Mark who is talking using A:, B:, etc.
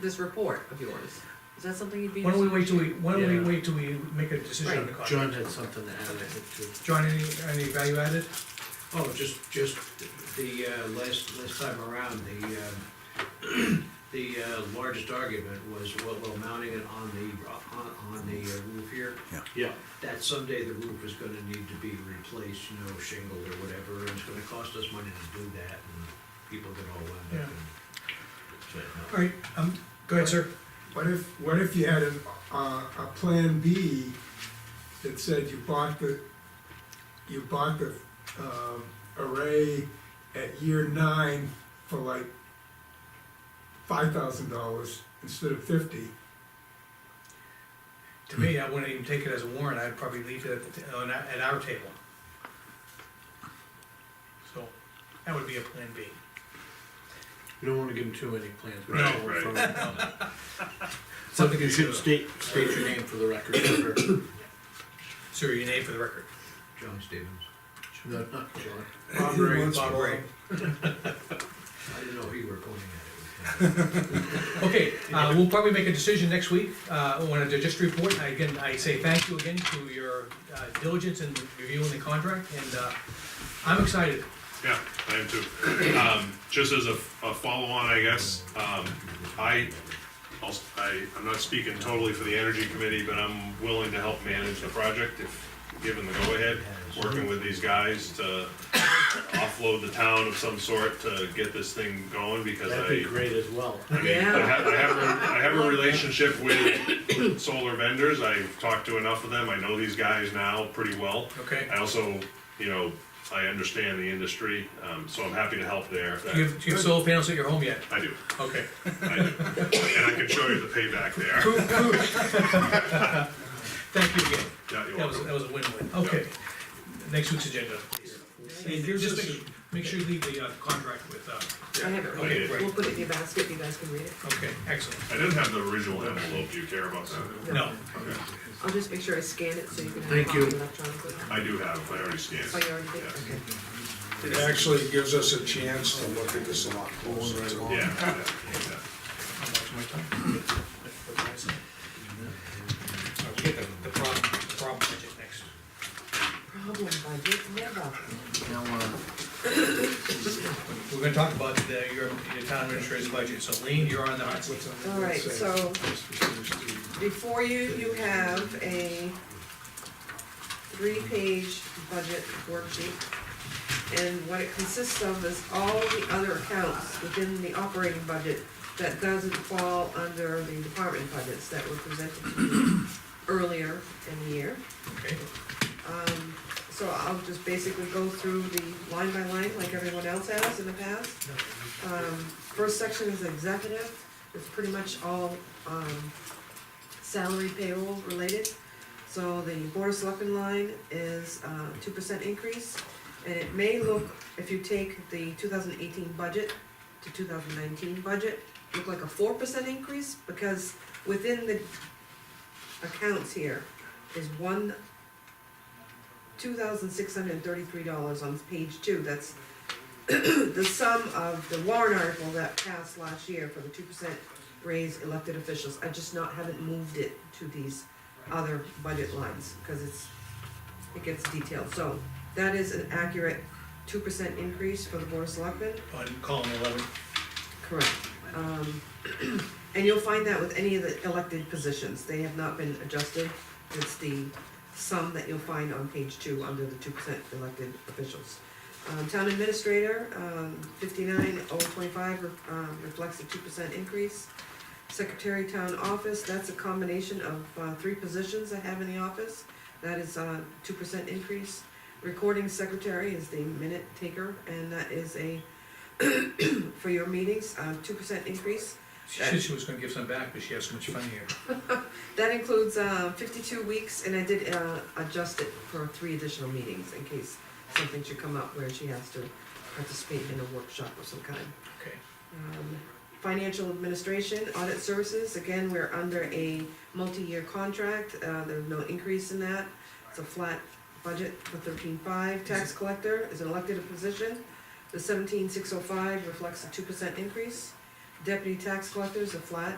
A: this report of yours? Is that something you'd be
B: Why don't we
A: interested
B: wait till we, why don't we
C: Yeah.
B: wait till we make a decision on the
C: Right,
B: contract?
C: John had something to add, I think, too.
B: John, any, any value added?
C: Oh, just, just the, uh, last, last time around, the, um, the uh, largest argument was, well, well, mounting it on the, on, on the uh, roof here.
D: Yeah,
C: That someday the roof is gonna need to be replaced, you know, shingled or whatever, and it's gonna cost us money to do that, and people get all wound up. and- so,
B: All right, um, go ahead, sir.
E: What if, what if you had a, a, a plan B that said you bought the, you bought the, um, array at year nine for like five thousand dollars instead of fifty?
B: To me, I wouldn't even take it as a warrant, I'd probably leave it at, the ta- on our- at our table. So, that would be a plan B.
C: We don't wanna give them too many plans. we
D: Right,
C: don't
D: right.
C: want to-
B: Something
C: You
B: to
C: should
B: state.
C: state, state your name for the record, for
B: Sir, your name for the record.
C: John Stevens. No, not John.
B: Bob
E: Ray.
B: Bob Ray.
C: I didn't know who you were pointing at.
B: Okay, uh, we'll probably make a decision next week, uh, I wanted to just report, I- again, I say thank you again to your uh, diligence in reviewing the contract, and, uh, I'm excited.
D: yeah, I am too. Um, just as a, a follow-on, I guess, um, I, I'll, I, I'm not speaking totally for the energy committee, but I'm willing to help manage the project if given the go-ahead, working with these guys to offload the town of some sort to get this thing going, because I.
C: That'd be great as well.
D: I mean, I
A: Yeah.
D: have, I have, a- I have a relationship with solar vendors, I've talked to enough of them, I know these guys now pretty well.
B: Okay.
D: I also, you know, I understand the industry, um, so I'm happy to help there. if that-
B: Do you have, do you have solar panels at your home yet?
D: I do,
B: Okay.
D: I do, and I can show you the payback there.
B: Thank you again.
D: Yeah, you're
B: That was,
D: welcome.
B: that was a win-win. Okay. Next week's agenda. And
A: here's
B: just
A: the-
B: make, make sure you leave the, uh, contract with, uh,
A: in? I have it,
D: I
A: right
D: did.
A: here. we'll put it in your basket, you guys can read it.
B: okay, excellent.
D: I didn't have the original envelope, do you care about that?
B: No,
A: I'll just make sure I scan it so you can have a
C: Thank
A: copy
C: you.
A: electronically.
D: I do have, I already scanned.
A: Oh, you already did?
D: Yes.
A: Okay.
F: It actually gives us a chance to look at this a lot closer. too.
D: Yeah, yeah, yeah.
B: I'm watching my time. All right, we get the, the problem, the problem budget next.
A: Problem budget, never.
C: Now, uh,
B: We're gonna talk about the, your, your town administrator's budget, so Lean, you're on the hot seat.
A: All right, so before you, you have a three-page budget worksheet. And what it consists of is all the other accounts within the operating budget that doesn't fall under the department budgets that were presented to you earlier in the year.
B: Okay,
A: Um, so I'll just basically go through the line by line like everyone else has in the past. Um, first section is executive, it's pretty much all, um, salary payroll related. So the board of selectmen line is, uh, two percent increase, and it may look, if you take the two thousand eighteen budget to two thousand nineteen budget, look like a four percent increase, because within the accounts here is one two thousand six hundred and thirty-three dollars on page two, that's the sum of the warrant article that passed last year for the two percent raise elected officials, I just not, haven't moved it to these other budget lines, cause it's, it gets detailed, so that is an accurate two percent increase for the board of selectmen,
B: on column eleven.
A: Correct. Um, And you'll find that with any of the elected positions, they have not been adjusted. It's the sum that you'll find on page two under the two percent elected officials. Um, Town administrator, um, fifty-nine oh twenty-five, um, reflects a two percent increase. Secretary town office, that's a combination of, uh, three positions I have in the office. That is, uh, two percent increase. Recording secretary is the minute taker, and that is a, for your meetings, um, two percent increase.
B: She said she was gonna give some back, but she has so much fun here.
A: That includes, uh, fifty-two weeks, and I did, uh, adjust it for three additional meetings in case something should come up where she has to participate in a workshop of some kind.
B: Okay,
A: Um, Financial administration, audit services, again, we're under a multi-year contract, uh, there's no increase in that. It's a flat budget for thirteen-five. Tax collector is an elected position. The seventeen-six oh five reflects a two percent increase. Deputy tax collector is a flat